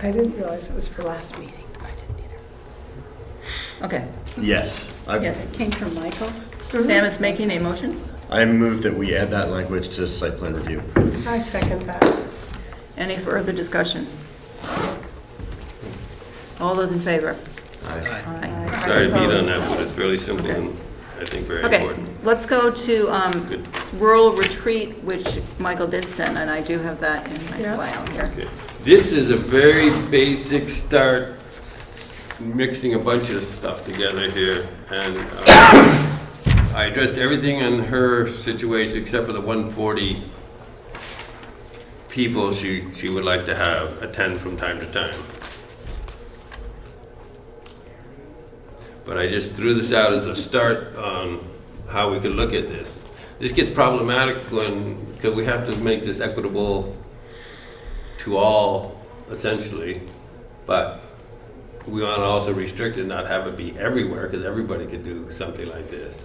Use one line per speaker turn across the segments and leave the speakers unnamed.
I didn't realize it was for last meeting. I didn't either.
Okay,
Yes. I've-
yes, it came from Michael. Sam is making a motion,
I move that we add that language to site plan review.
I second that.
any further discussion? All those in favor?
Aye.
Aye.
Sorry to beat on that, but it's fairly simple
Okay.
and I think very
Okay,
important.
let's go to um,
Good.
rural retreat, which Michael did send, and I do have that in my
Yeah.
file here.
Okay. This is a very basic start, mixing a bunch of stuff together here. And uh, I addressed everything in her situation except for the 140 people she, she would like to have attend from time to time. But I just threw this out as a start on how we could look at this. This gets problematic when, because we have to make this equitable to all essentially, but we want to also restrict it, not have it be everywhere, because everybody could do something like this.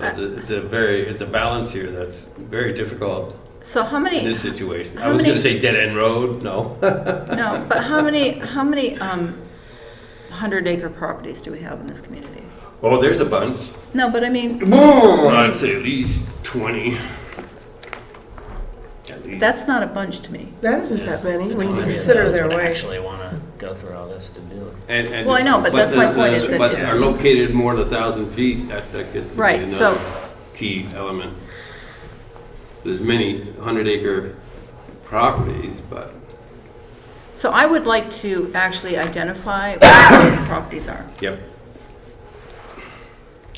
It's a, it's a very, it's a balance here that's very difficult
So how
in
many,
this situation. I
How
was
many-
gonna say dead end road, no.
no, but how many, how many 100 acre properties do we have in this community?
Oh, there's a bunch.
No, but I mean,
I'd say at least twenty. At least.
that's not a bunch to me.
That isn't that many when you
Maybe
consider
those
their
would
way.
Actually want to go through all this to do it.
And- and-
Well, I know, but that's
the-
my point
the-
is that
But
it's-
are located more than a thousand feet, that, that gets to be
Right, so-
another key element. There's many hundred acre properties, but
So I would like to actually identify what those properties are.
yep,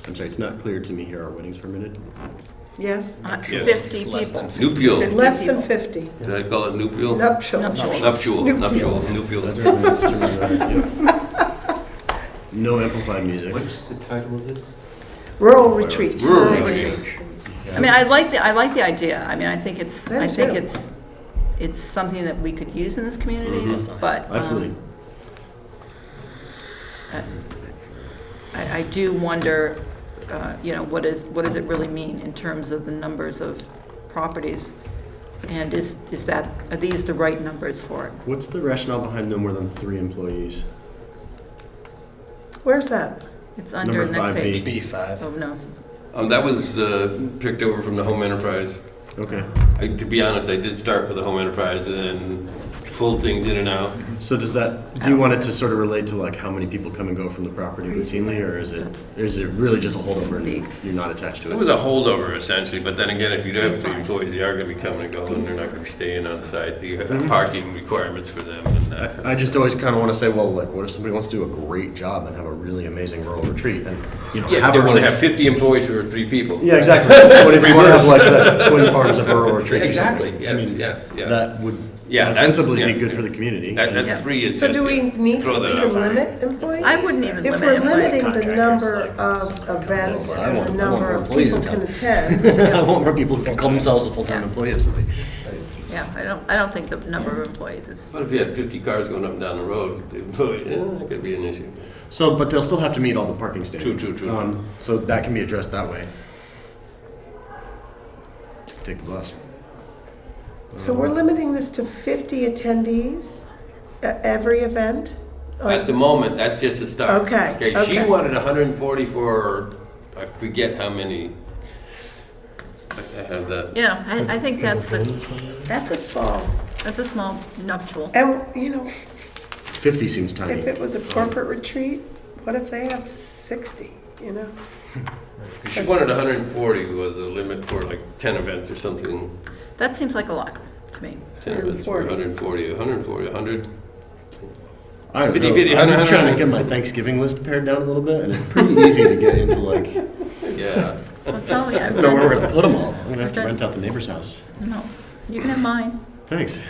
I'm sorry, it's not clear to me here, are weddings permitted?
Yes?
Uh,
Yes.
50
It's less than
people.
nupial, did
Less than 50
I call it nupial?
nuptials.
Nuptials.
Nuptial, nuptial,
That's
nupial.
right, it's to me, right, yeah. No amplified music.
the title of this?
Rural retreat.
Rural retreat.
I mean, I like the, I like the idea. I mean, I think it's,
I
I
do
think
too.
it's, it's something that we could use in this community,
Mhm.
but. um,
Mm-hmm. Absolutely.
I, I do wonder, uh, you know, what is, what does it really mean in terms of the numbers of properties? And is, is that, are these the right numbers for it?
What's the rationale behind no more than three employees?
Where's that?
It's under the
Number
next
five
page.
B.
Oh,
B5.
no.
Um, that was, uh, picked over from the home enterprise.
Okay,
I, to be honest, I did start with the home enterprise and then pulled things in and out.
so does that, do you want it to sort of relate to like how many people come and go from the property routinely, or is it, is it really just a holdover and you're not attached to
It
it?
was a holdover essentially, but then again, if you do have three employees, they are gonna be coming and going, they're not gonna be staying on site, you have
Mm-hmm.
parking requirements for them and that. kind of-
I I just always kind of want to say, well, like, what if somebody wants to do a great job and have a really amazing rural retreat and, you know,
Yeah,
have
they
a
only
really
have fifty employees for three people.
Yeah, exactly. What if you want to have like the twin farms of rural retreat or
Exactly,
something? I
yes,
mean,
yes, yes.
That would
Yeah, that-
ostensibly
yeah.
be good for the community.
That,
Yeah.
that three is
So
just.
do we need to
throw that
even
out.
limit employees?
I wouldn't
If
even limit
we're
employees.
limiting the
Contractors,
number
like,
of
someone comes
events
over. I
and the
want- I want
number
more
of
employees
people
in
can
town.
attend,
I want more people who can call themselves a full-time employee of something.
Yeah, I don't, I don't think the number of employees is,
What if you had fifty cars going up and down the road, the employee- yeah, that could be an issue.
So, but they'll still have to meet all the parking standards.
true, true.
Um, So that can be addressed that way. Take the bus.
so we're limiting this to 50 attendees at every event?
At the moment, that's just a start.
Oh. Okay,
She
okay.
wanted hundred and forty for, I forget how many. I I have that.
yeah, I, I think that's the,
That's a small.
that's a small nuptial.
And, you know,
Fifty seems tiny.
If it was a corporate retreat, what if they have 60, you know?
She wanted 140 was a limit for like 10 events or something.
That seems like a lot to me.
10 events for 140, 140, 100.
I don't
50,
know.
50,
I've been
100,
trying to get my Thanksgiving list pared down a little bit, and it's pretty easy to get into like, I
Yeah.
Well, tell me, I
don't know where we're gonna put them all. I'm gonna have to
Okay.
rent out the neighbor's house.
no, you can have mine.
Thanks.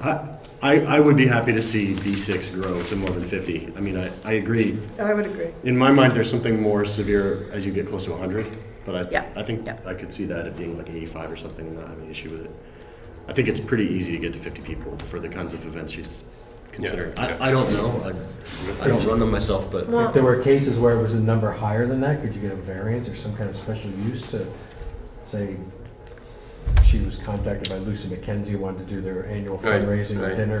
I, I, I would be happy to see B6 grow to more than 50. I mean, I, I agree.
I would agree.
In my mind, there's something more severe as you get close to 100, but I,
Yeah,
I think
yeah.
I could see that it being like 85 or something and not having an issue with it. I think it's pretty easy to get to 50 people for the kinds of events she's considering.
yeah.
I, I don't know. I, I don't run them myself, but
If there were cases where it was a number higher than that, could you get a variance or some kind of special use to, say, she was contacted by Lucy McKenzie, wanted to do their annual
Right,
fundraising
right.
dinner